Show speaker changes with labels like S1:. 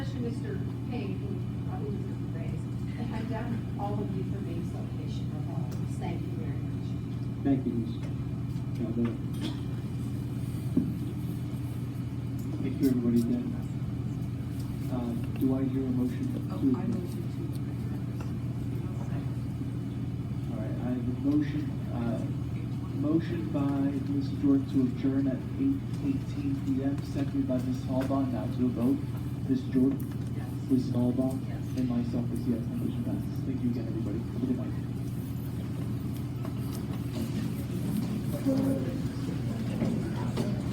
S1: all of you for being so patient with all of us. Thank you very much.
S2: Thank you, Ms. Calvert. Thank you, everybody, then. Uh, Do I hear a motion to?
S3: Oh, I moved it
S2: All right, I have a motion, uh, motion by Ms. Jordan to adjourn at eight eighteen P M, seconded by Ms. Halbach, now to a vote. Ms. Jordan,
S3: to. Yes.
S2: Ms. Halbach,
S3: Yes.
S2: and myself is yes, the motion passes. Thank you again, everybody. Have a good night.